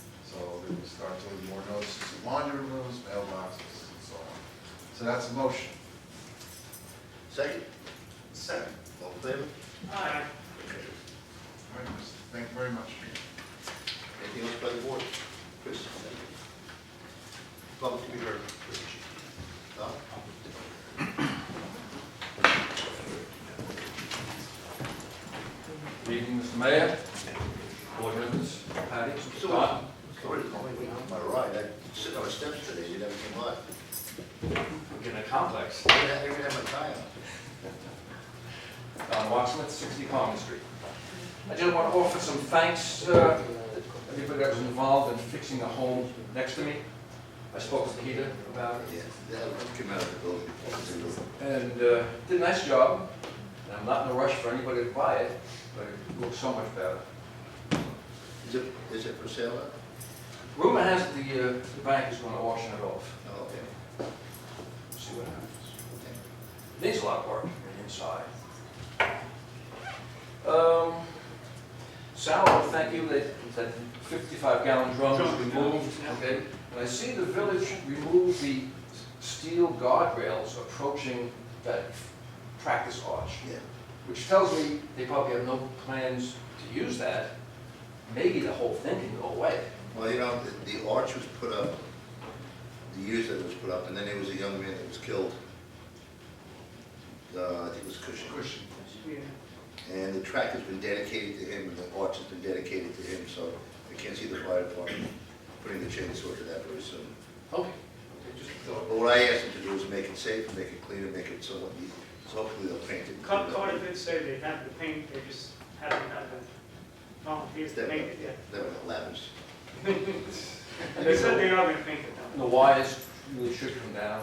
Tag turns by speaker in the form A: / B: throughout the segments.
A: it will start to leave more notices in laundry rooms, mailboxes, and so on. So that's a motion.
B: Second,
A: Second.
B: all in favor?
C: Aye.
A: All right, Chris, thank you very much.
B: Anything else by the board? Chris? thank you. Public to be heard. No?
D: Good Evening, Mr. Mayor, board members, Patty,
B: So-
D: Don.
B: Sorry, it's only me on my ride, I sit on the steps today, you never came by.
D: We're getting a complex.
B: I didn't have- I didn't have my tie on.
D: Don Watson, 60 Palmer Street. I just want to offer some thanks uh, to everybody that was involved in fixing the home next to me. I spoke to Peter about it,
B: Yeah, that came out of the building.
D: and uh, did a nice job. And I'm not in a rush for anybody to buy it, but it looks so much better.
B: Is it, is it for sale? now?
D: Rumor has it the uh, the bank is going to auction it off,
B: No, Oh, okay.
D: We'll see what happens.
B: okay.
D: Needs a lot of work on the inside. Um, Sal, I wanna thank you, that, that fifty-five gallon drum was removed, okay? And I see the village removed the steel guardrails approaching that practice arch,
B: Yeah,
D: which tells me they probably have no plans to use that. Maybe the whole thing can go away.
B: well, you know, the- the arch was put up, the years that it was put up, and then there was a young man that was killed. Uh, I think it was Cushing.
A: Question.
B: And the track has been dedicated to him, and the arch has been dedicated to him, so I can't see the fire department putting the chainsaw to that very soon.
D: Okay.
B: But what I asked them to do is make it safe, make it cleaner, make it somewhat neat, so hopefully they'll paint it.
C: Cut, Carter did say they had the paint, they just haven't had the volunteers to paint it yet.
B: Then it lavish.
C: They said they are gonna paint it though.
D: The wires really should come down.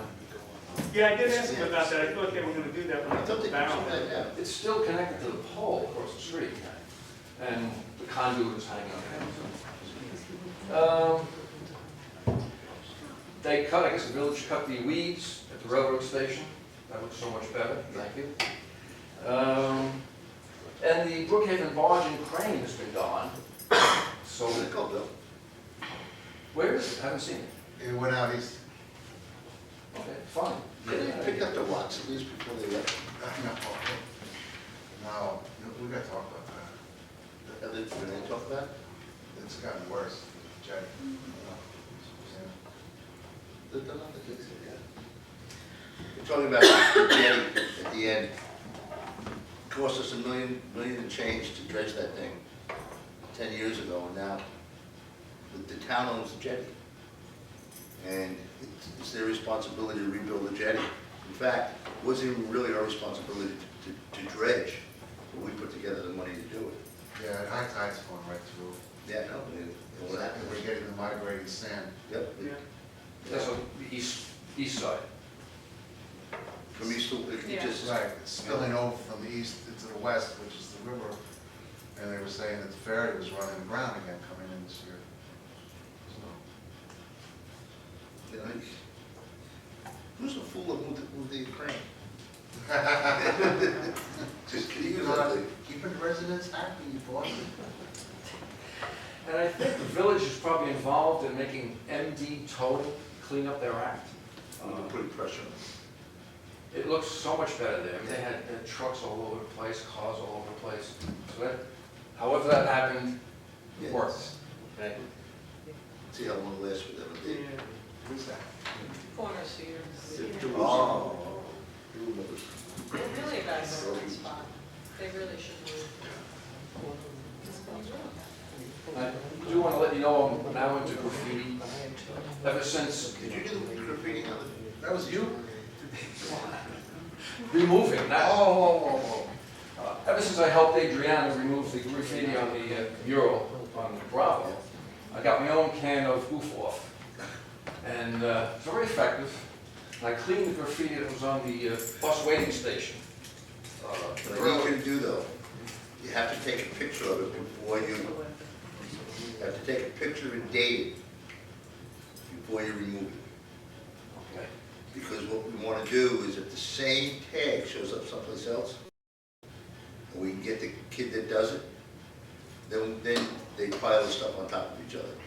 C: Yeah, I did ask them about that, I thought they were gonna do that when
B: I
C: I
B: thought they
C: took the
B: did some
C: barrel.
B: of that now.
D: It's still connected to the pole across the street, and the conduit is hanging on. Um, They cut, I guess the village cut the weeds at the railroad station, that looks so much better, thank you. Um, And the Brookhaven barge and crane has been gone, so,
B: What was it called, Bill?
D: where is it, haven't seen it,
A: It went out, he's,
D: okay, fine.
B: Could they pick up the watts at least before they left?
A: Uh, no, no, we gotta talk about that.
B: Have they, did they talk about? it?
A: It's gotten worse, Jack.
B: They're done on the fix it, yeah. We're talking about the jetty at the end. Cost us a million, million and change to dredge that thing ten years ago, and now the, the town owns the jetty. And it's, it's their responsibility to rebuild the jetty. In fact, it wasn't even really our responsibility to, to dredge, but we put together the money to do it.
A: Yeah, and high tide's going right through.
B: Yeah, no, it, it was
A: And We're getting the migrating sand.
B: Yep,
C: Yeah.
B: it-
D: That's on the east, east side.
B: from east to, it
E: Yeah.
B: just,
A: Right, it's spilling over from the east into the west, which is the river. And they were saying that the ferry was running aground again coming in this year. So,
B: you know, who's the fool that moved, moved the crane? Just kidding.
A: Keeping the- keeping residents happy, boy.
D: And I think the village is probably involved in making MD Total clean up their act. Um,
B: We've been putting pressure on
D: It looks so much better there. They had uh, trucks all over the place, cars all over the place. So that, however that happened, it
B: Yeah.
D: worked. Okay.
B: them. See how long it lasts with them.
C: Yeah,
A: Who's that?
E: Corner Cedars.
B: Oh.
E: They're really a bad voting spot. They really should move.
D: I do want to let you know I'm now into graffiti. Ever since
B: Did you do the graffiti on the?
A: That was you?
D: removing
A: Oh,
D: that,
A: oh, oh,
D: uh, ever since I helped Adriana remove the graffiti on the uh, mural on Bravo, I got my own can of goof off. And uh, it's very effective. And I cleaned the graffiti that was on the uh, bus waiting station. Uh,
B: But you can do though, you have to take a picture of it before you, you have to take a picture and date it before you remove it.
D: okay.
B: Because what we want to do is if the same tag shows up someplace else, and we can get the kid that does it, then, then they pile the stuff on top of each other.